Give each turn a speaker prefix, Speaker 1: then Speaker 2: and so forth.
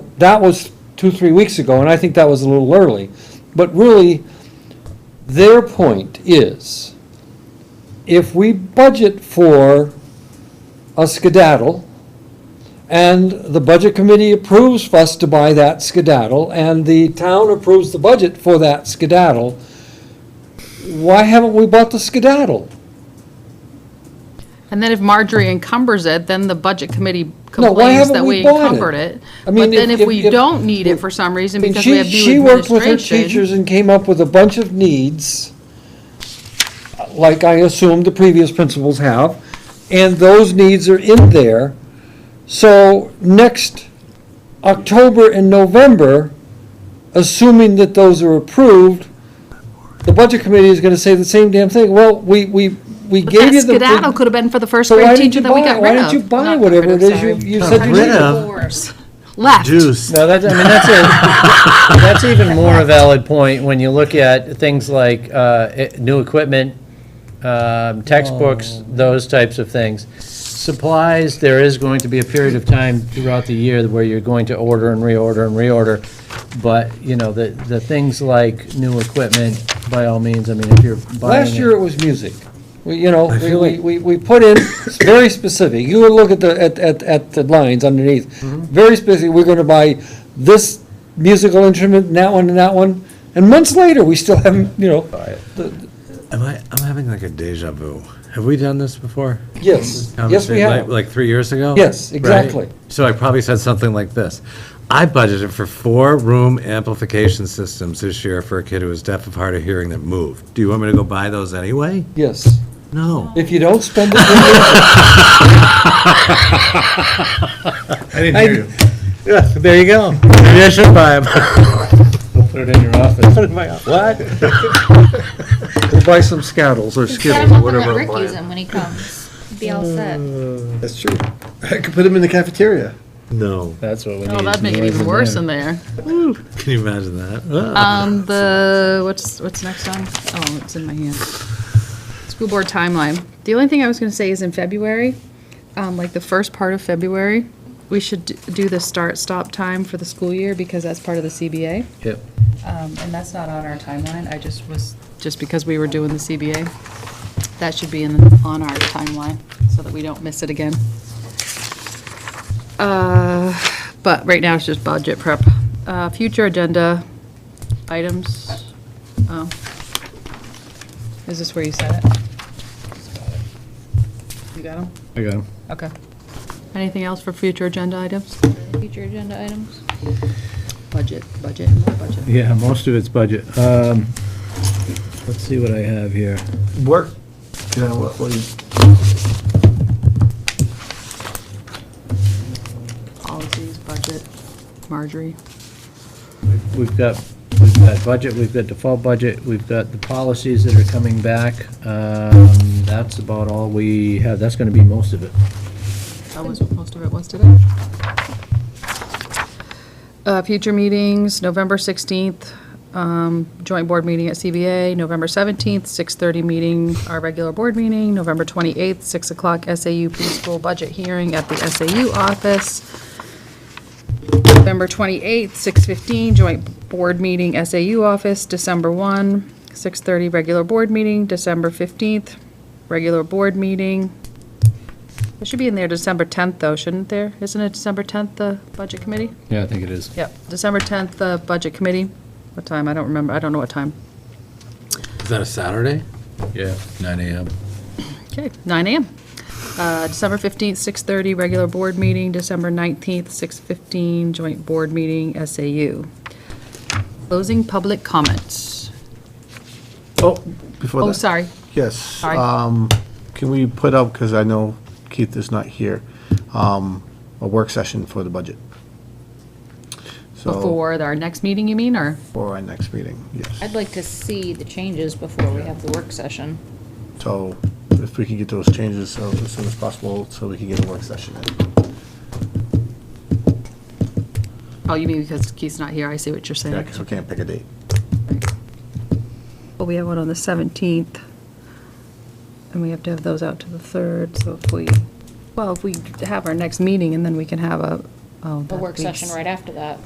Speaker 1: That was two, three weeks ago, and I think that was a little early. But really, their point is, if we budget for a skedaddle, and the budget committee approves for us to buy that skedaddle, and the town approves the budget for that skedaddle, why haven't we bought the skedaddle?
Speaker 2: And then if Marjorie encumbers it, then the budget committee
Speaker 1: why
Speaker 2: complains
Speaker 1: haven't
Speaker 2: that
Speaker 1: we
Speaker 2: we
Speaker 1: bought it?
Speaker 2: encumbered it.
Speaker 1: I mean,
Speaker 2: But then
Speaker 1: if-
Speaker 2: if we
Speaker 1: if-
Speaker 2: don't need
Speaker 1: if-
Speaker 2: it for some reason
Speaker 1: I mean,
Speaker 2: because we
Speaker 1: she-
Speaker 2: have
Speaker 1: She
Speaker 2: new
Speaker 1: worked with her
Speaker 2: administration.
Speaker 1: teachers and came up with a bunch of needs, like I assume the previous principals have, and those needs are in there. So next October and November, assuming that those are approved, the budget committee is gonna say the same damn thing. Well, we, we, we
Speaker 2: But
Speaker 1: gave
Speaker 2: that
Speaker 1: you the.
Speaker 2: skedaddle could have been for the first
Speaker 1: So why
Speaker 2: grade
Speaker 1: didn't
Speaker 2: teacher
Speaker 1: you
Speaker 2: that we
Speaker 1: buy it?
Speaker 2: got
Speaker 1: Why
Speaker 2: rid
Speaker 1: didn't
Speaker 2: of.
Speaker 1: you buy
Speaker 2: Not got
Speaker 1: whatever it
Speaker 2: rid of,
Speaker 1: is you,
Speaker 2: sorry.
Speaker 1: you
Speaker 3: Got
Speaker 1: said you
Speaker 3: rid
Speaker 1: needed?
Speaker 3: of.
Speaker 2: Left.
Speaker 3: Juice.
Speaker 4: No, that, I mean, that's a, that's even more a valid point when you look at things like uh, e- new equipment, um,
Speaker 1: Oh.
Speaker 4: textbooks, those types of things. Supplies, there is going to be a period of time throughout the year where you're going to order and reorder and reorder. But, you know, the, the things like new equipment, by all means, I mean, if you're buying
Speaker 1: Last
Speaker 4: it-
Speaker 1: year it was music. We, you know, we- we, we, we put in, it's very specific, you would look at the, at, at, at the lines underneath.
Speaker 4: Mm-hmm.
Speaker 1: Very specific, we're gonna buy this musical instrument, and that one, and that one, and months later, we still haven't, you know,
Speaker 3: Am I, I'm having like a deja vu. Have we done this before?
Speaker 1: yes, yes, we
Speaker 3: Conversation, like-
Speaker 1: have.
Speaker 3: Like three years ago?
Speaker 1: Yes,
Speaker 3: Right?
Speaker 1: exactly.
Speaker 3: So I probably said something like this. I budgeted for four room amplification systems this year for a kid who was deaf of hard of hearing that moved. Do you want me to go buy those anyway?
Speaker 1: Yes,
Speaker 3: No.
Speaker 1: if you don't spend it,
Speaker 3: I didn't hear you. Yeah, there you go. Maybe I should buy them.
Speaker 4: Put it in your office.
Speaker 3: What?
Speaker 1: we'll buy some scoundrels or
Speaker 5: Set
Speaker 1: skittles
Speaker 5: him
Speaker 1: or
Speaker 5: up and
Speaker 1: whatever.
Speaker 5: let Rick use him when he comes. Be all set.
Speaker 6: That's true. I could put them in the cafeteria.
Speaker 3: No.
Speaker 4: That's what we need.
Speaker 2: Oh, that'd make it
Speaker 4: noise
Speaker 2: even
Speaker 4: in
Speaker 2: worse
Speaker 4: there.
Speaker 2: in there.
Speaker 3: Can you imagine that? Ah.
Speaker 2: Um, the, what's, what's next on? Oh, it's in my hand. School board timeline. The only thing I was gonna say is in February, um, like the first part of February, we should d- do the start-stop time for the school year because that's part of the CBA.
Speaker 4: Yep.
Speaker 2: Um, and that's not on our timeline, I just was, just because we were doing the CBA. That should be in, on our timeline, so that we don't miss it again. Uh, But right now, it's just budget prep. Uh, Future agenda items, oh. Is this where you said it? You got them?
Speaker 4: I got 'em.
Speaker 2: Okay. Anything else for future agenda items?
Speaker 5: Future agenda items.
Speaker 2: Budget, budget, more budget.
Speaker 4: Yeah, most of it's budget. Um, Let's see what I have here.
Speaker 6: Work. You know, what, what do you,
Speaker 2: Policies, budget, Marjorie.
Speaker 4: We've got, we've got budget, we've got default budget, we've got the policies that are coming back. Um, That's about all we have, that's gonna be most of it.
Speaker 2: That was what most of it was today. Uh, Future meetings, November 16th, um, joint board meeting at CBA, November 17th, 6:30 meeting, our regular board meeting, November 28th, 6 o'clock SAU preschool budget hearing at the SAU office, November 28th, 6:15 joint board meeting SAU office, December 1, 6:30 regular board meeting, December 15th, regular board meeting, it should be in there December 10th, though, shouldn't there? Isn't it December 10th, the Budget Committee?
Speaker 4: Yeah, I think it is.
Speaker 2: Yep, December 10th, the Budget Committee. What time? I don't remember. I don't know what time.
Speaker 3: Is that a Saturday? Yeah, nine AM.
Speaker 2: Okay, 9 AM. Uh, December 15th, 6:30, regular board meeting. December 19th, 6:15, joint board meeting, SAU. Closing public comments.
Speaker 6: oh, before that.
Speaker 2: Oh, sorry.
Speaker 6: Yes.
Speaker 2: Sorry.
Speaker 6: Um, can we put up, because I know Keith is not here, um, a work session for the budget? So,
Speaker 2: Before our next meeting, you mean, or?
Speaker 6: For our next meeting, yes.
Speaker 5: I'd like to see the changes before we have the work session.
Speaker 6: So if we can get those changes so- as soon as possible, so we can get a work session in.
Speaker 2: Oh, you mean because Keith's not here. I see what you're saying.
Speaker 6: Yeah, because we can't pick a date.
Speaker 2: Well, we have one on the 17th, and we have to have those out to the 3rd, so if we, well, if we have our next meeting, and then we can have a, oh.
Speaker 5: A
Speaker 2: that
Speaker 5: work
Speaker 2: week's-
Speaker 5: session right after that.